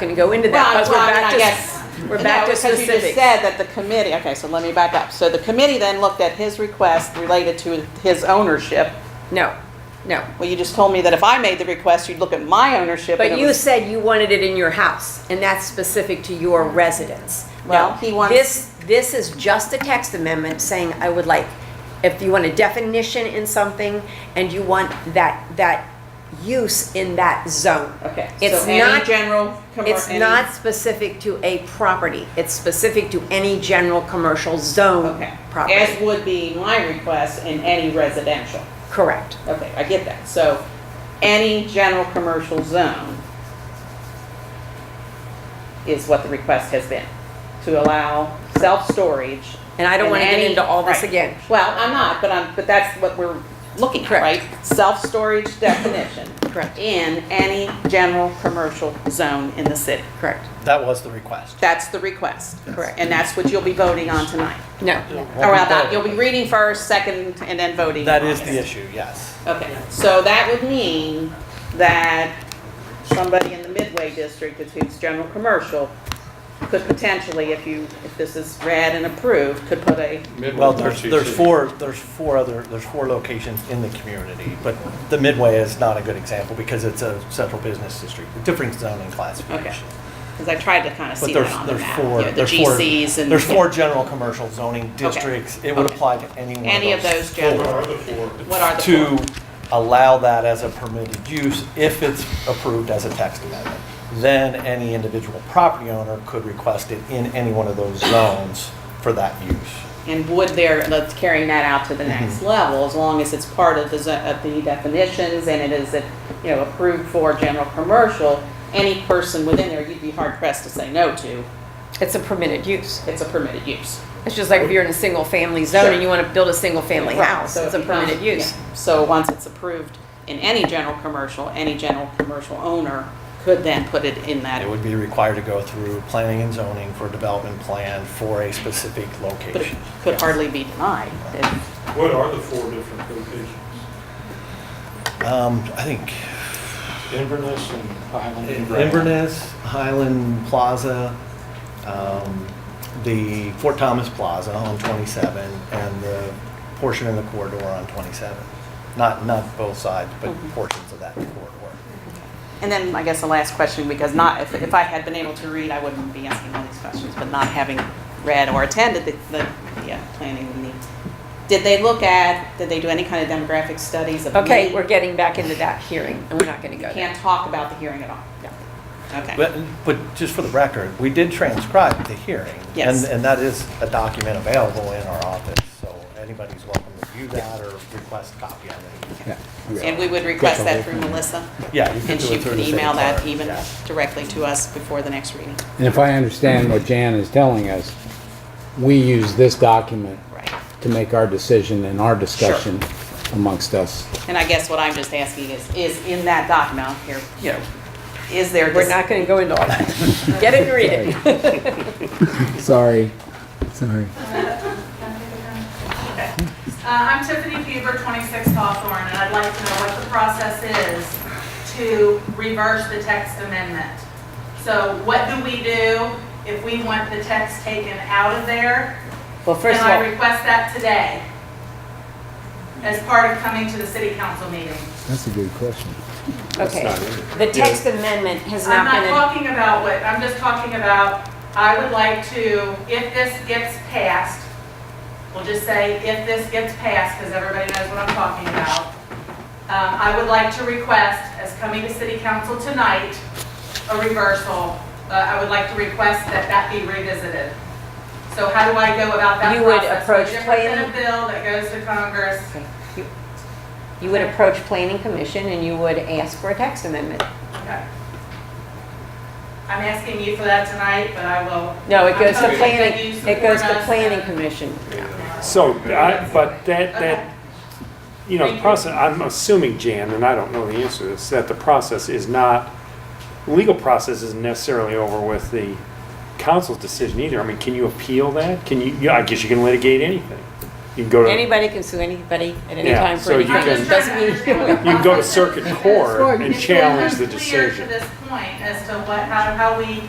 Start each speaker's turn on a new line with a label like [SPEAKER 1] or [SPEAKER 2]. [SPEAKER 1] going to go into that
[SPEAKER 2] Well,
[SPEAKER 1] because we're
[SPEAKER 2] well, I mean,
[SPEAKER 1] back
[SPEAKER 2] I
[SPEAKER 1] to,
[SPEAKER 2] guess-
[SPEAKER 1] we're back
[SPEAKER 2] No,
[SPEAKER 1] to
[SPEAKER 2] Because you just
[SPEAKER 1] specifics.
[SPEAKER 2] said that the committee, okay, so let me back up. So the committee then looked at his request related to his ownership.
[SPEAKER 1] No, no.
[SPEAKER 2] Well, you just told me that if I made the request, you'd look at my ownership. and
[SPEAKER 1] But
[SPEAKER 2] it
[SPEAKER 1] you
[SPEAKER 2] was-
[SPEAKER 1] said you wanted it in your house, and that's specific to your residence.
[SPEAKER 2] Well,
[SPEAKER 1] No,
[SPEAKER 2] he wants-
[SPEAKER 1] This, this is just a text amendment saying, I would like, if you want a definition in something, and you want that, that use in that zone.
[SPEAKER 2] Okay. so
[SPEAKER 1] It's
[SPEAKER 2] any
[SPEAKER 1] not,
[SPEAKER 2] General. commer-
[SPEAKER 1] it's
[SPEAKER 2] any-
[SPEAKER 1] not specific to a property. It's specific to any general commercial zone
[SPEAKER 2] Okay. As
[SPEAKER 1] property.
[SPEAKER 2] would be my request in any residential.
[SPEAKER 1] Correct.
[SPEAKER 2] Okay, I get that. So any general commercial zone is what the request has been, to allow self-storage.
[SPEAKER 1] And I don't
[SPEAKER 2] in
[SPEAKER 1] wanna get
[SPEAKER 2] any-
[SPEAKER 1] into all this
[SPEAKER 2] right.
[SPEAKER 1] again.
[SPEAKER 2] Well, I'm not, but I'm, but that's what we're looking at,
[SPEAKER 1] Correct.
[SPEAKER 2] right? Self-storage definition.
[SPEAKER 1] Correct.
[SPEAKER 2] In any general commercial zone in the city.
[SPEAKER 1] Correct.
[SPEAKER 3] That was the request.
[SPEAKER 2] That's the request.
[SPEAKER 1] Correct.
[SPEAKER 2] And that's what you'll be voting on tonight.
[SPEAKER 1] No.
[SPEAKER 2] Or not, you'll be reading first, second, and then voting.
[SPEAKER 3] That is
[SPEAKER 2] Yes.
[SPEAKER 3] the issue, yes.
[SPEAKER 2] Okay, so that would mean that somebody in the Midway District, that's who's general commercial, could potentially, if you, if this is read and approved, could put a,
[SPEAKER 3] Well, there's, there's four, there's four other, there's four locations in the community, but the Midway is not a good example because it's a central business district, with different zoning classification.
[SPEAKER 2] because I tried to kind of
[SPEAKER 3] But
[SPEAKER 2] see that
[SPEAKER 3] there's,
[SPEAKER 2] on the
[SPEAKER 3] there's
[SPEAKER 2] map.
[SPEAKER 3] four,
[SPEAKER 2] Yeah,
[SPEAKER 3] there's
[SPEAKER 2] The
[SPEAKER 3] four.
[SPEAKER 2] GCs and.
[SPEAKER 3] There's four general commercial zoning districts. It would
[SPEAKER 2] Okay.
[SPEAKER 3] apply to any one of those.
[SPEAKER 2] Any of those
[SPEAKER 3] four
[SPEAKER 4] What
[SPEAKER 2] general,
[SPEAKER 4] are the four?
[SPEAKER 2] what are the four?
[SPEAKER 3] To allow that as a permitted use if it's approved as a text amendment. Then any individual property owner could request it in any one of those zones for that use.
[SPEAKER 2] And would there, let's carrying that out to the
[SPEAKER 3] Mm-hmm.
[SPEAKER 2] next level, as long as it's part of the, zo- of the definitions and it is, you know, approved for general commercial, any person within there, you'd be hard pressed to say no to,
[SPEAKER 1] It's a permitted use.
[SPEAKER 2] it's a permitted use.
[SPEAKER 1] It's just like if you're in a single family zone and you want to build a single family
[SPEAKER 2] Right,
[SPEAKER 1] house,
[SPEAKER 2] so
[SPEAKER 1] it's
[SPEAKER 2] it
[SPEAKER 1] a permitted
[SPEAKER 2] becomes-
[SPEAKER 1] use.
[SPEAKER 2] yeah. So once it's approved in any general commercial, any general commercial owner could then put it in that.
[SPEAKER 3] It would be required to go through planning and zoning for a development plan for a specific
[SPEAKER 2] But it
[SPEAKER 3] location.
[SPEAKER 2] could hardly be denied. if-
[SPEAKER 4] What are the four different locations?
[SPEAKER 3] Um, I think
[SPEAKER 4] Inverness and Highland. and Brad.
[SPEAKER 3] Inverness, Highland Plaza, um, the Fort Thomas Plaza on 27, and the portion in the corridor on 27. Not, not both sides, but
[SPEAKER 2] Mm-hmm.
[SPEAKER 3] portions of that corridor.
[SPEAKER 2] And then I guess the last question, because not, if, if I had been able to read, I wouldn't be asking all these questions, but not having read or attended the, the, yeah, planning meeting. Did they look at, did they do any kind of demographic studies of?
[SPEAKER 1] Okay,
[SPEAKER 2] need?
[SPEAKER 1] we're getting back into that hearing, and we're not going to go there.
[SPEAKER 2] Can't talk about the hearing at all.
[SPEAKER 1] No.
[SPEAKER 2] Okay.
[SPEAKER 3] But, but just for the record, we did transcribe the hearing.
[SPEAKER 2] Yes.
[SPEAKER 3] And, and that is a document available in our office, so anybody's welcome to view that or request a copy of it.
[SPEAKER 2] And we would request that through Melissa?
[SPEAKER 3] Yeah. you can
[SPEAKER 2] And
[SPEAKER 3] do
[SPEAKER 2] she
[SPEAKER 3] it through
[SPEAKER 2] could
[SPEAKER 3] the city
[SPEAKER 2] email that
[SPEAKER 3] clerk,
[SPEAKER 2] even
[SPEAKER 3] yeah.
[SPEAKER 2] directly to us before the next reading.
[SPEAKER 5] And if I understand what Jan is telling us, we use this document
[SPEAKER 2] Right.
[SPEAKER 5] to make our decision and our discussion amongst us.
[SPEAKER 2] And I guess what I'm just asking is, is in that document here, you know, is there,
[SPEAKER 1] We're
[SPEAKER 2] dis-
[SPEAKER 1] not going to go into all that. Get it and read it.
[SPEAKER 5] Sorry, sorry.
[SPEAKER 6] Uh, I'm Tiffany Fever, 26 Hawthorne, and I'd like to know what the process is to reverse the text amendment. So what do we do if we want the text taken out of there?
[SPEAKER 2] well, first of
[SPEAKER 6] And I
[SPEAKER 2] all,
[SPEAKER 6] request that today as part of coming to the city council meeting.
[SPEAKER 5] That's a good question.
[SPEAKER 1] Okay. The text amendment has
[SPEAKER 6] I'm
[SPEAKER 1] not
[SPEAKER 6] not
[SPEAKER 1] been,
[SPEAKER 6] talking about what, I'm just talking about, I would like to, if this gets passed, we'll just say if this gets passed, because everybody knows what I'm talking about, um, I would like to request, as coming to city council tonight, a reversal. Uh, I would like to request that that be revisited. So how do I go about that process?
[SPEAKER 1] You would approach
[SPEAKER 6] Different than a
[SPEAKER 1] planning-
[SPEAKER 6] bill that goes to Congress.
[SPEAKER 1] you would approach planning commission and you would ask for a text amendment.
[SPEAKER 6] Okay. I'm asking you for that tonight, but I will
[SPEAKER 1] No, it goes to
[SPEAKER 6] Okay.
[SPEAKER 1] planning, it goes to planning commission.
[SPEAKER 7] So, I, but that,
[SPEAKER 6] Okay.
[SPEAKER 7] that, you know, the process, I'm assuming, Jan, and I don't know the answer to this, that the process is not, legal process isn't necessarily over with the council's decision either. I mean, can you appeal that? Can you, yeah, I guess you can litigate anything. You can go to, you
[SPEAKER 1] Anybody can sue anybody at any
[SPEAKER 7] Yeah,
[SPEAKER 1] time
[SPEAKER 7] so
[SPEAKER 1] for
[SPEAKER 7] you
[SPEAKER 1] anything.
[SPEAKER 7] can-
[SPEAKER 1] It Doesn't mean.
[SPEAKER 7] can go to circuit court and
[SPEAKER 6] It's
[SPEAKER 7] challenge the
[SPEAKER 6] unclear
[SPEAKER 7] decision.
[SPEAKER 6] to this point as to what, how, how we